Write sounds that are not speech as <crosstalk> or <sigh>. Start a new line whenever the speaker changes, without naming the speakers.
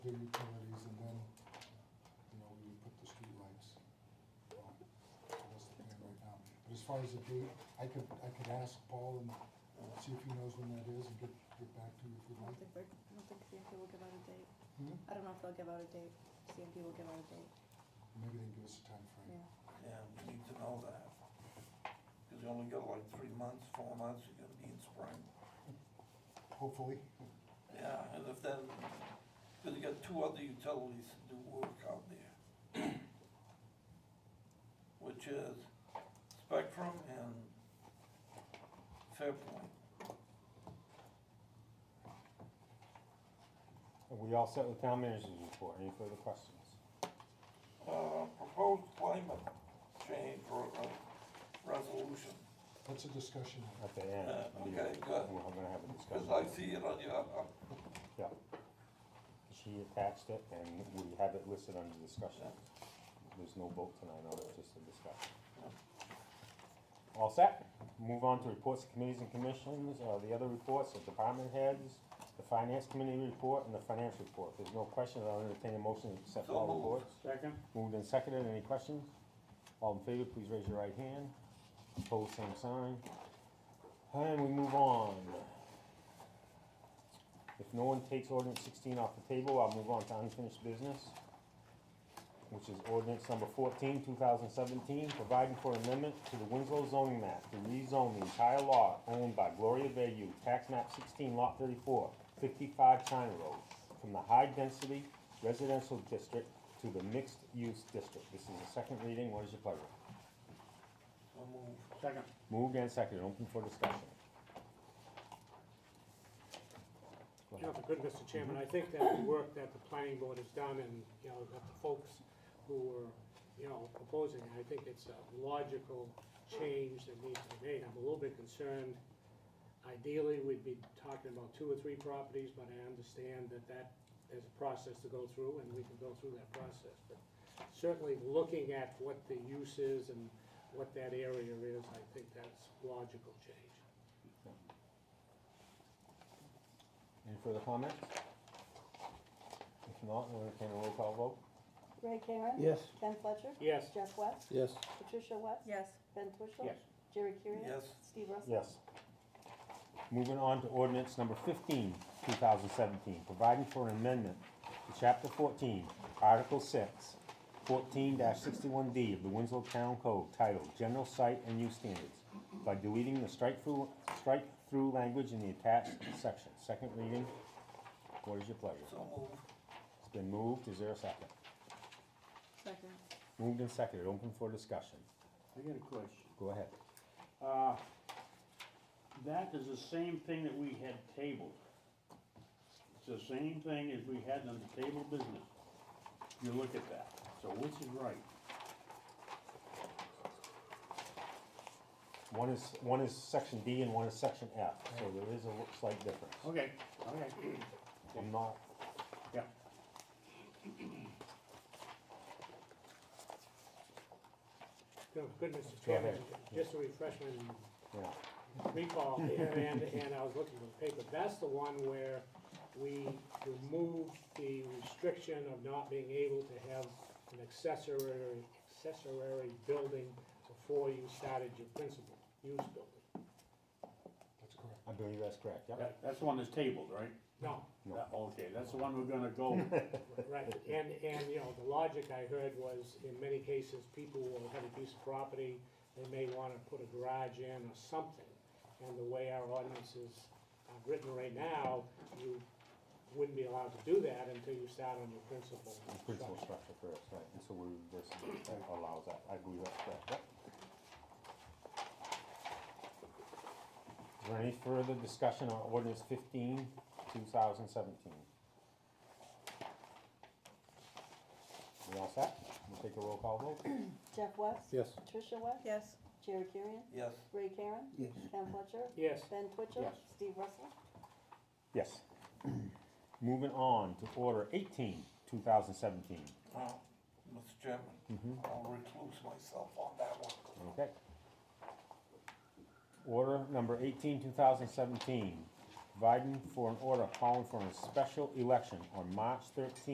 far as the date, I could, I could ask Paul and uh, see if he knows when that is and get, get back to you if
I
you'd
don't
like.
think they're, I don't think CMP will give out a date.
Hmm?
I don't know if they'll give out a date. CMP will give out a date,
Maybe they can give us a time frame.
yeah.
Yeah, we need to know that. Because you only got like three months, four months, you're gonna be in spring.
hopefully.
Yeah, and if then, because you got two other utilities that do work out there. Which is Spectrum and Fairpoint.
Are we all set with town manager's report? Any further questions?
Uh, proposed climate change or uh, resolution.
That's a discussion.
At the end.
Uh,
we-
okay, good.
We're gonna have a
Because I
discussion.
see it on your, uh,
Yeah. She attached it and we have it listed under discussion. There's no vote tonight on it, just a discussion. All set? Move on to reports of committees and commissions, uh, the other reports, the department heads, the finance committee report and the finance report. If There's no questions, I'll entertain a motion to accept
So
all
moved.
reports.
Second?
Moved and seconded, any questions? All in favor, please raise your right hand. Opposed, same sign. And we move on. If no one takes ordinance sixteen off the table, I'll move on to unfinished business, which is ordinance number 14, 2017, providing for amendment to the Winslow zoning map to rezone the entire lot owned by Gloria Bayou, tax map sixteen, lot 34, 55 China Road, from the high-density residential district to the mixed-use district. This is the second reading. What is your pleasure?
so move.
Second.
Moved and seconded. Open for discussion. Go
You know,
ahead.
for good, Mr. Chairman, I think that the work that the planning board has done and, you know, that the folks who were, you know, proposing, I think it's a logical change that needs to be made. I'm a little bit concerned, ideally, we'd be talking about two or three properties, but I understand that that, there's a process to go through, and we can go through that process. But certainly, looking at what the use is and what that area is, I think that's logical change.
Any further comments? If not, we'll entertain a roll call vote.
Ray Karen?
Yes.
Ben Fletcher?
Yes.
Jeff West?
Yes.
Patricia West?
Yes,
Ben Twitchell?
Yes.
Jerry Kurian?
Yes.
Steve Russell?
Yes. Moving on to ordinance number 15, 2017, providing for an amendment to Chapter 14, Article 6, 14-61D of the Winslow Town Code titled General Site and Use Standards by deleting the strike-through, strike-through language in the attached section. Second reading. What is your pleasure?
So move.
It's been moved. Is there a second?
second.
Moved and seconded. Open for discussion.
I got a question.
Go ahead.
Uh, that is the same thing that we had tabled. It's the same thing as we had on the table business. You look at that. So which is right?
One is, one is section D and one is section F, so there is a slight difference.
Okay, okay,
I'm not,
yeah.
No, good, Mr.
Go ahead.
Chairman, Oh, just a refreshment
yeah, <laughs>
recall here, and, and I was looking at the paper, that's the one where we removed the restriction of not being able to have an accessory, accessory building before you started your principal use building.
That's correct.
I believe that's correct, yeah.
That, that's the one that's tabled, right?
No,
No.
Okay, that's the one we're gonna go with.
Right, and, and, you know, the logic I heard was, in many cases, people will have a piece of property, they may wanna put a garage in or something. And the way our ordinance is uh, written right now, you wouldn't be allowed to do that until you start on your principal
The Principal
structure.
structure first, right, and so we, this, that allows that, I agree that's correct, yep. Is there any further discussion on ordinance 15, 2017? We all set? We'll take a roll call vote.
Jeff West?
Yes.
Patricia West?
Yes,
Jerry Kurian?
Yes,
Ray Karen? Yes. Ben Fletcher?
Yes.
Ben Twitchell?
Yes.
Steve Russell?
Yes. Moving on to order 18, 2017.
uh, Mr. Chairman, I'll recluse myself on that one.
Okay. Order number 18, 2017, providing for an order calling for a special election on March 13,